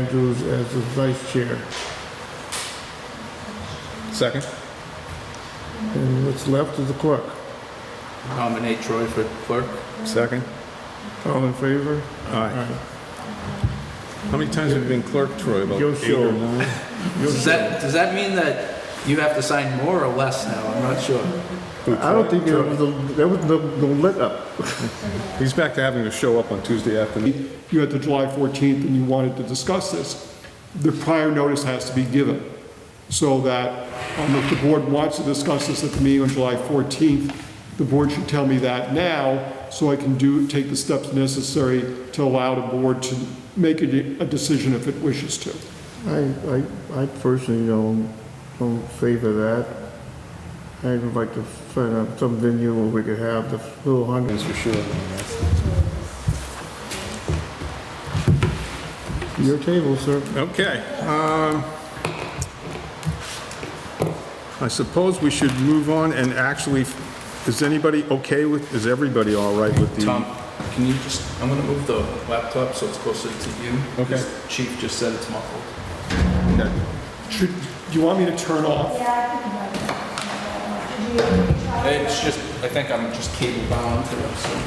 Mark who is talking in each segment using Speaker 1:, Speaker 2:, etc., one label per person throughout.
Speaker 1: Andrews as the vice chair.
Speaker 2: Second.
Speaker 1: And what's left is the clerk.
Speaker 3: Nominate Troy for clerk.
Speaker 2: Second.
Speaker 1: All in favor?
Speaker 2: Aye. How many times have you been clerk, Troy? About
Speaker 1: Yo,
Speaker 2: eight or
Speaker 1: sure.
Speaker 2: nine?
Speaker 3: Does that, does that mean that you have to sign more or less now? I'm not sure.
Speaker 2: Mm.
Speaker 1: I don't think there was, a- there was no, no let up.
Speaker 2: He's back to having to show up on Tuesday afternoon.
Speaker 4: you had the July 14th and you wanted to discuss this, the prior notice has to be given, so that um, if the board wants to discuss this at the meeting on July 14th, the board should tell me that now, so I can do, take the steps necessary to allow the board to make a de- a decision if it wishes to.
Speaker 1: I, I, I personally don't, don't favor that. I'd like to find out some venue where we could have the full hundred.
Speaker 2: That's for sure.
Speaker 1: Your table, sir.
Speaker 2: Okay. um, I suppose we should move on and actually, is anybody okay with, is everybody all right with the?
Speaker 3: Tom, can you just, I'm gonna move the laptop so it's closer to you.
Speaker 2: Okay.
Speaker 3: Because Chief just said it's muffled.
Speaker 2: Okay.
Speaker 4: Should, do you want me to turn off?
Speaker 3: It's just, I think I'm just cable bound to it, so.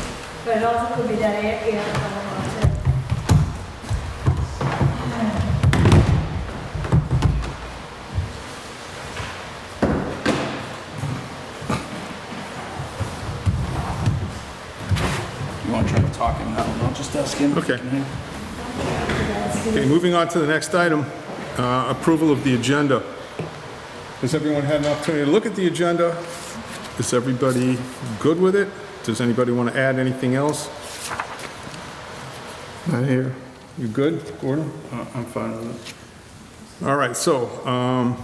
Speaker 5: But it also could be that air, air coming on too.
Speaker 3: You wanna try to talk him now? I'll just ask him.
Speaker 2: Okay. Okay, moving on to the next item, uh, approval of the agenda. Has everyone had an opportunity to look at the agenda? Is everybody good with it? Does anybody want to add anything else?
Speaker 1: Not here.
Speaker 2: You good, Gordon?
Speaker 3: Uh, I'm fine with it.
Speaker 2: All right, so um,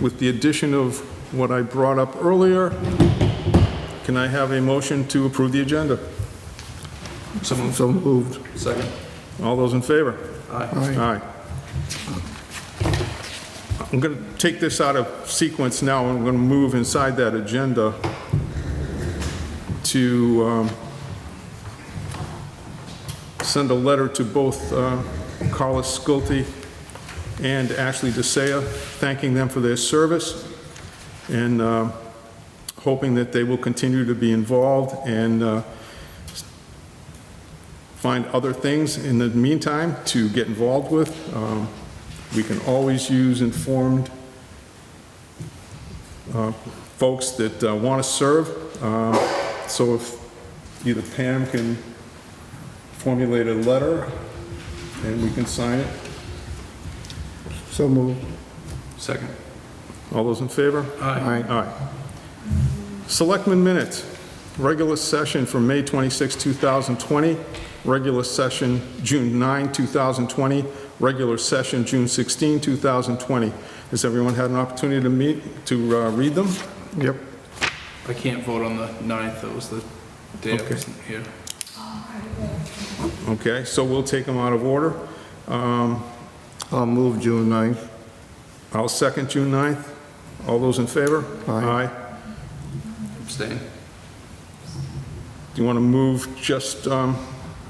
Speaker 2: with the addition of what I brought up earlier, can I have a motion to approve the agenda?
Speaker 3: Someone,
Speaker 1: So moved.
Speaker 3: second.
Speaker 2: All those in favor?
Speaker 3: Aye.
Speaker 2: Aye. I'm going to take this out of sequence now, and I'm going to move inside that agenda to um, send a letter to both uh, Carla Schulte and Ashley DeSaya, thanking them for their service, and uh, hoping that they will continue to be involved and uh, find other things in the meantime to get involved with. Um, We can always use informed uh, folks that want to serve. Um, So if either Pam can formulate a letter and we can sign it.
Speaker 1: So moved.
Speaker 3: Second.
Speaker 2: All those in favor?
Speaker 1: Aye.
Speaker 2: Aye. Selectmen minutes, regular session from May 26, 2020, regular session June 9, 2020, regular session June 16, 2020. Has everyone had an opportunity to meet, to uh, read them?
Speaker 1: Yep.
Speaker 3: I can't vote on the ninth, that was the day I
Speaker 2: Okay.
Speaker 3: wasn't here.
Speaker 2: Okay, so we'll take them out of order. Um,
Speaker 1: I'll move June 9th.
Speaker 2: I'll second June 9th. All those in favor?
Speaker 1: Aye.
Speaker 3: Abstain.
Speaker 2: Do you want to move just, um,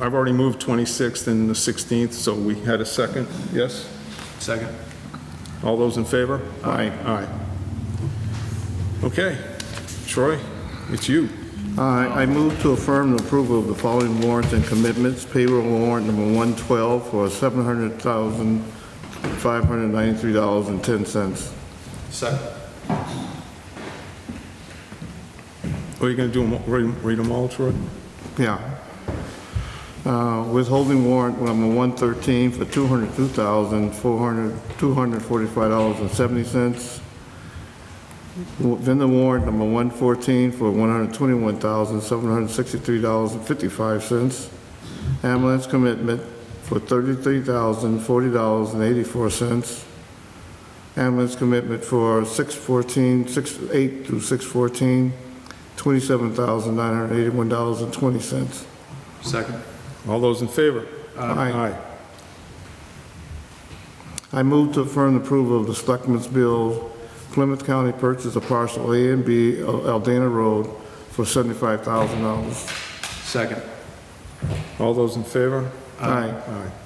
Speaker 2: I've already moved 26th and the 16th, so we had a second, yes?
Speaker 3: Second.
Speaker 2: All those in favor?
Speaker 1: Aye.
Speaker 2: Aye. Okay, Troy, it's you.
Speaker 1: I I move to affirm the approval of the following warrants and commitments. Payroll warrant number 112 for $700,593.10.
Speaker 3: Second.
Speaker 2: Are you going to do them, read them all, Troy?
Speaker 1: Yeah. Uh, Withholding warrant number 113 for $202,445.70. Vendor warrant number 114 for $121,763.55. Ambulance commitment for $33,040.84. Ambulance commitment for 614, 68 through 614, $27,981.20.
Speaker 3: Second.
Speaker 2: All those in favor?
Speaker 1: Aye. I move to affirm the approval of the Selectmen's Bill, Plymouth County purchase of parcel A and B of Aldana Road for $75,000.
Speaker 3: Second.
Speaker 2: All those in favor?
Speaker 1: Aye.
Speaker 2: Aye.